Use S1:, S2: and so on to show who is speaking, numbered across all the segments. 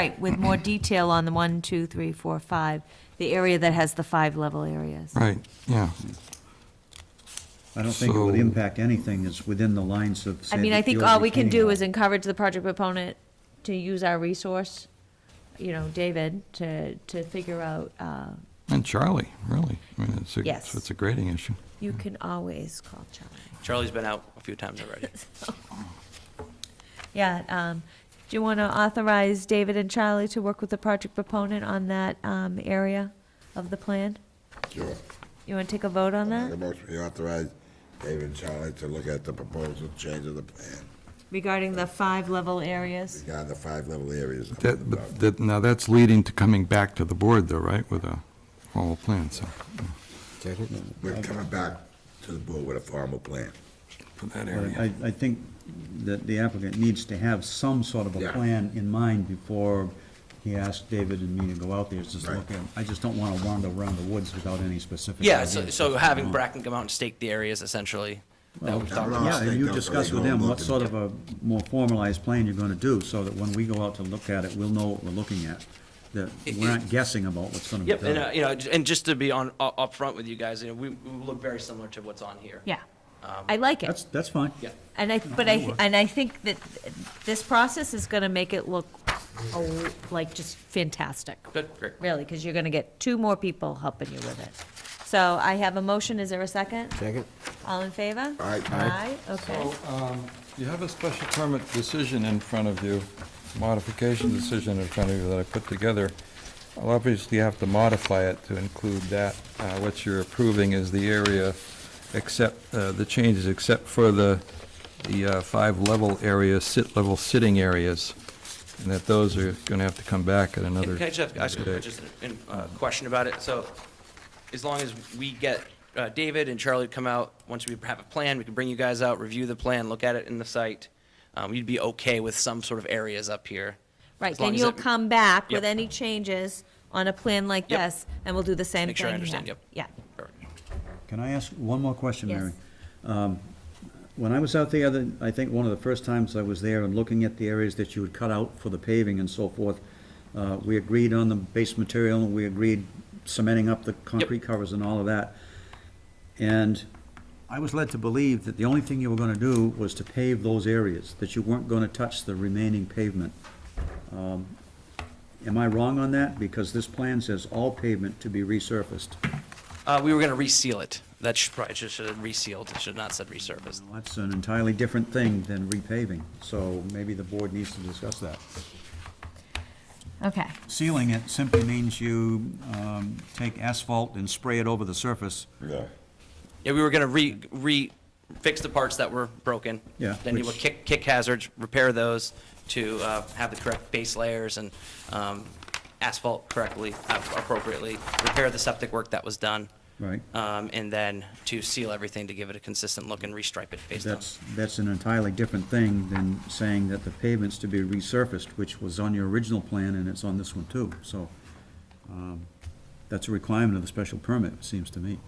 S1: Right, with more detail on the one, two, three, four, five, the area that has the five level areas.
S2: Right, yeah.
S3: I don't think it would
S2: So-
S3: impact anything that's within the lines of.
S1: I
S3: say,
S1: mean,
S3: the
S1: I think
S3: field
S1: all we can
S3: retaining
S1: do
S3: wall.
S1: is encourage the project proponent to use our resource, you know, David, to, to figure out, uh,
S2: And Charlie, really. I mean, it's a,
S1: Yes.
S2: it's a grading issue.
S3: Hmm.
S1: you can always call Charlie.
S4: Charlie's been out a few times already.
S1: Yeah, um, do you want to authorize David and Charlie to work with the project proponent on that, um, area of the plan?
S5: Sure.
S1: You want to take a vote on
S5: Make a
S1: that
S5: motion, we authorize David and Charlie to look at the proposal, change of the plan,
S1: regarding the five level areas?
S5: down the five level areas.
S2: That, but that, now that's leading to coming back to the board though, right, with a formal plan, so,
S5: We're coming back to the board with a formal plan.
S2: for that
S3: But
S2: area.
S3: I, I think that the applicant needs to have some sort of a
S5: Yeah.
S3: plan in mind before he asks David and me to go out there, It's just
S5: Right.
S3: look at, I just don't wanna wander around the woods without any specific.
S4: Yeah, so,
S3: ideas.
S4: so having Bracken come out and stake the areas essentially. That we talked about.
S5: Ross,
S3: Yeah,
S5: they
S3: and you
S5: don't
S3: discuss
S5: really
S3: with
S5: know
S3: them what
S5: looking.
S3: sort of a more formalized plan you're gonna do, so that when we go out to look at it, we'll know what we're looking at. That we're not guessing about what's gonna be
S4: Yep, and, uh,
S3: done.
S4: you know, j- and just to be on, u- upfront with you guys, you know, we, we look very similar to what's on here.
S1: Yeah, I like it.
S3: That's, that's fine.
S4: Yeah.
S1: And I, but I, and I think that this process is gonna make it look, oh, like, just fantastic,
S4: Good, great.
S1: really, because you're gonna get two more people helping you with it. So I have a motion, is there a second?
S5: Second.
S1: All in favor?
S5: Aye.
S1: Aye, okay.
S2: So, um, you have a special permit decision in front of you, modification decision in front of you that I put together. Well, obviously, you have to modify it to include that, uh, what you're approving is the area except, uh, the changes except for the, the uh, five level areas, sit level sitting areas, and that those are gonna have to come back at another.
S4: Can I just ask
S2: another
S4: a
S2: date.
S4: just an- uh, question about it? So as long as we get uh, David and Charlie to come out, once we have a plan, we can bring you guys out, review the plan, look at it in the site. Um, You'd be okay with some sort of areas up here.
S1: Right,
S4: as long
S1: then
S4: as
S1: you'll
S4: it-
S1: come back with
S4: Yep.
S1: any changes on a plan like
S4: Yep.
S1: this, and we'll do the same thing
S4: Make sure I
S1: here.
S4: understand, yep.
S1: Yeah,
S4: Perfect.
S3: Can I ask one more question,
S1: Yes.
S3: Mary? Um, When I was out there, the- I think one of the first times I was there and looking at the areas that you would cut out for the paving and so forth, uh, we agreed on the base material, and we agreed cementing up the concrete covers and all of that. And I was led to believe that the only thing you were gonna do was to pave those areas, that you weren't gonna touch the remaining pavement. Um, Am I wrong on that? Because this plan says all pavement to be resurfaced.
S4: Uh, We were going to reseal it. That should probably, should should have resealed, it should not said resurfaced.
S3: Well, That's an entirely different thing than repaving, so maybe the board needs to discuss that.
S1: okay.
S3: Sealing it simply means you um, take asphalt and spray it over the surface.
S5: Yeah.
S4: Yeah, we were gonna re, re, fix the parts that were broken.
S3: Yeah,
S4: Then you would
S3: which-
S4: kick, kick hazards, repair those to, uh, have the correct base layers and, um, asphalt correctly, uh, appropriately, repair the septic work that was done.
S3: Right.
S4: Um, and then to seal everything to give it a consistent look and restripe it based on.
S3: That's, that's an entirely different thing than saying that the pavement's to be resurfaced, which was on your original plan, and it's on this one too, so um, that's a requirement of the special permit, it seems to me.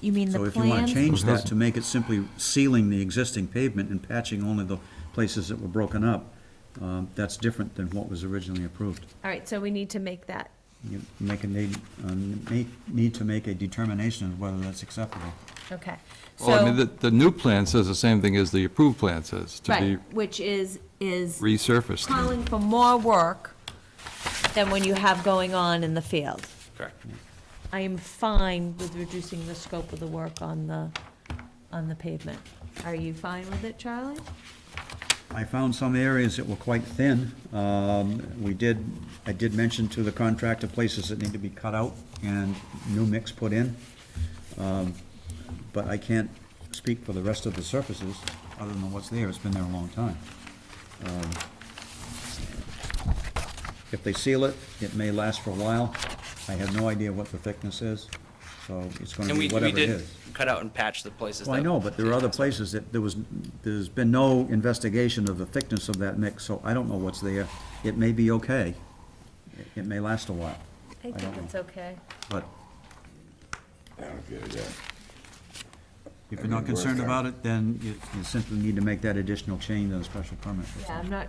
S1: You mean the
S3: So
S1: plan?
S3: if you want to change that
S2: Those
S3: to make it simply sealing the existing pavement and patching only the places that were broken up, um, that's different than what was originally approved.
S1: All right, so we need to make that,
S3: You make a need, um, make, need to make a determination of whether that's acceptable.
S1: okay.
S2: Well, I
S1: So-
S2: mean, the, the new plan says the same thing as the approved plan says, to be
S1: Right, which is, is
S2: resurfaced.
S1: calling for more work than when you have going on in the field.
S4: Correct.
S1: I am fine with reducing the scope of the work on the, on the pavement. Are you fine with it, Charlie?
S3: I found some areas that were quite thin. Um, we did, I did mention to the contractor places that need to be cut out and new mix put in. Um, But I can't speak for the rest of the surfaces, other than what's there, it's been there a long time. Um, If they seal it, it may last for a while. I have no idea what the thickness is, so it's gonna
S4: And
S3: be
S4: we, we
S3: whatever it
S4: did
S3: is.
S4: cut out and patch the places.
S3: Well, I
S4: that-
S3: know, but there are other places that there was, there's been no investigation of the thickness of that mix, so I don't know what's there. It may be okay. It- It may last a while,
S1: I
S3: don't
S1: think
S3: know.
S1: it's okay.
S3: but
S5: I don't get it, yeah.
S3: If you're not concerned about it, then you you simply need to make that additional change on the special permit.
S1: Yeah, I'm not